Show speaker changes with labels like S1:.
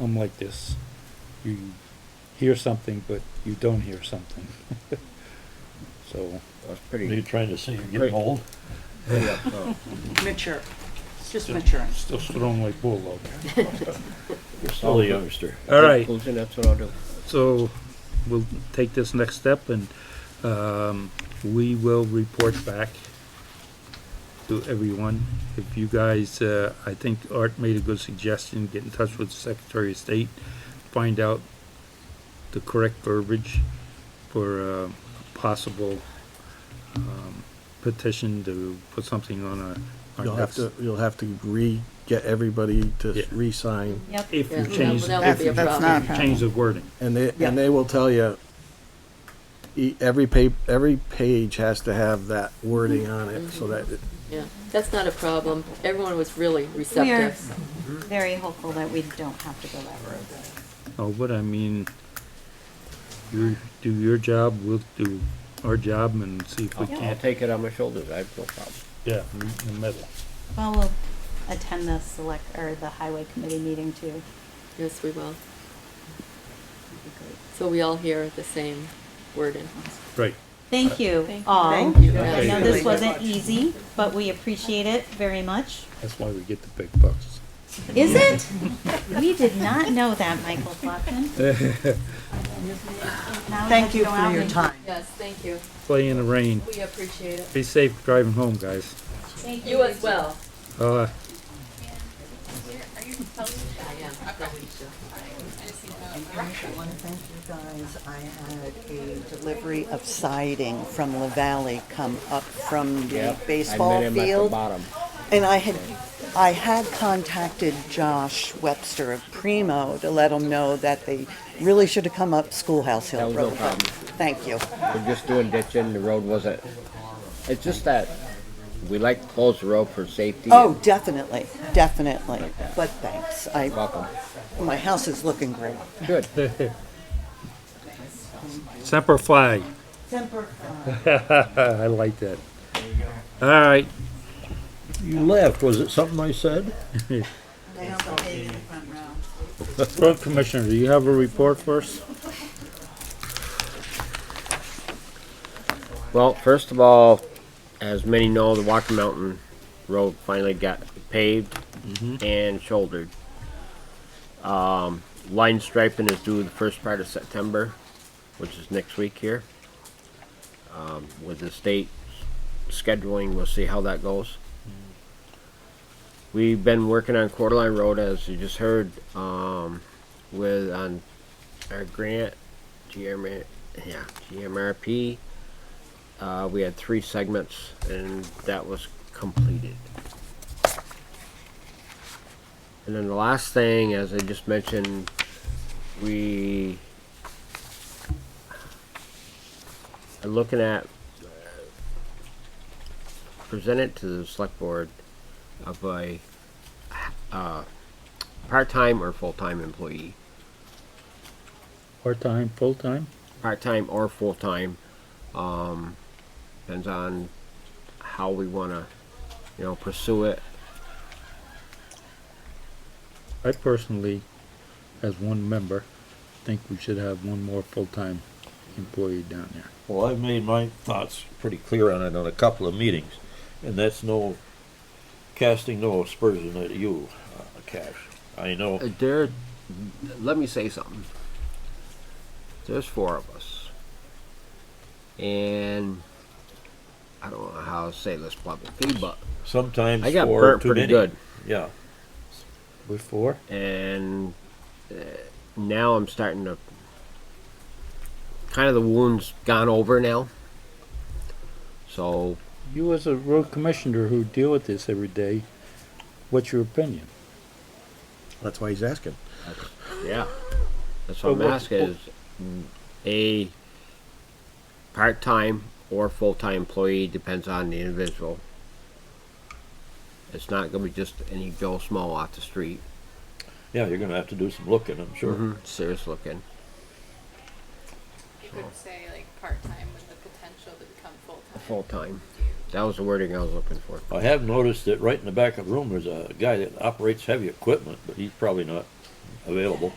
S1: I'm like this. You hear something, but you don't hear something. So,
S2: That's
S3: What are you
S2: pretty,
S3: trying to say? You're
S2: Right.
S3: getting old?
S2: pretty up front.
S4: Mature. It's just maturing.
S1: still strong like bull out there.
S3: You're still a youngster.
S1: All right.
S2: Close in, that's what I'll do.
S1: So, we'll take this next step and, um, we will report back to everyone. If you guys, uh, I think Art made a good suggestion, get in touch with the Secretary of State, find out the correct verbiage for a possible, um, petition to put something on a. our
S5: You'll have to,
S1: next-
S5: you'll have to re, get everybody
S1: Yeah.
S5: to re-sign,
S6: Yep.
S1: If you
S6: That-
S1: change,
S6: That would
S4: That's,
S6: be a
S4: that's not a
S6: problem.
S1: change
S4: problem.
S1: the wording.
S5: and they,
S4: Yeah.
S5: and they will tell you, e- every pa, every page has to have that wording on it, so that, it-
S6: Yeah, that's not a problem. Everyone was really
S7: We are
S6: receptive.
S7: very hopeful that we don't have to go that road.
S1: Oh, but I mean, you do your job, we'll do our job and see if we
S2: I'll, I'll
S1: can't.
S2: take it on my shoulders, I have no problem.
S1: Yeah, meet in the middle.
S7: Well, we'll attend the select, or the highway committee meeting too.
S6: Yes, we will.
S7: That'd be great.
S6: So we all hear the same wording.
S1: Right.
S7: Thank you all.
S4: Thank you.
S7: I know
S4: Thank
S7: this
S4: you.
S7: wasn't easy, but we appreciate it very much.
S1: That's why we get the big bucks.
S7: Is it? We did not know that, Michael Flopkin.
S4: Thank you for your time.
S6: Yes, thank you.
S1: Play in the rain.
S6: We appreciate it.
S1: Be safe driving home, guys.
S6: You as well.
S1: Uh,
S6: I am.
S8: I want to thank you guys. I had a delivery of siding from La Valley come up from the
S2: Yep, I
S8: baseball
S2: met him at the
S8: field.
S2: bottom.
S8: And I had, I had contacted Josh Webster of Primo to let him know that they really should have come up Schoolhouse
S2: That
S8: Hill
S2: was no
S8: Road. but
S2: problem.
S8: Thank you.
S2: We're just doing ditching, the road wasn't, it's just that we like to close the road for safety.
S8: Oh, definitely, definitely. But thanks. I,
S2: Welcome.
S8: my house is looking great.
S2: Good.
S1: Semper Fi. I like that. All right.
S3: You left. Was it something I said?
S1: Road Commissioner, do you have a report for us?
S2: Well, first of all, as many know, the Walker Mountain Road finally got paved and shouldered. Um, line striping is due the first part of September, which is next week here. Um, with the state scheduling, we'll see how that goes. We've been working on Quarterline Road, as you just heard, um, with, on our grant, GM, yeah, GMRP. Uh, we had three segments and that was completed. And then the last thing, as I just mentioned, we are looking at, uh, present it to the select board of a, uh, part-time or full-time employee.
S1: Part-time, full-time?
S2: part-time or full-time. Um, depends on how we wanna, you know, pursue it.
S1: I personally, as one member, think we should have one more full-time employee down there.
S3: Well, I've made my thoughts pretty clear on it on a couple of meetings, and that's no casting no aspersion at you, uh, Cash. I know.
S2: Uh, There, let me say something. There's four of us. And I don't know how to say this publicly, but
S3: Sometimes
S2: I got
S3: four are
S2: burnt
S3: too
S2: pretty
S3: many.
S2: good.
S3: Yeah.
S1: With four?
S2: and uh, now I'm starting to kind of the wound's gone over now. So
S1: You as a road commissioner who deal with this every day, what's your opinion?
S5: that's why he's asking.
S2: Yeah, that's what I'm
S1: But what-
S2: asking is mm, a part-time or full-time employee, depends on the individual. It's not gonna be just any Joe Small off the street,
S3: Yeah, you're going to have to do some looking, I'm sure.
S2: Mm-hmm. serious looking.
S9: You could say like part-time with the potential to become full-time.
S2: Full-time. That was the wording I was looking for.
S3: I have noticed that right in the back of the room, there's a guy that operates heavy equipment, but he's probably not available.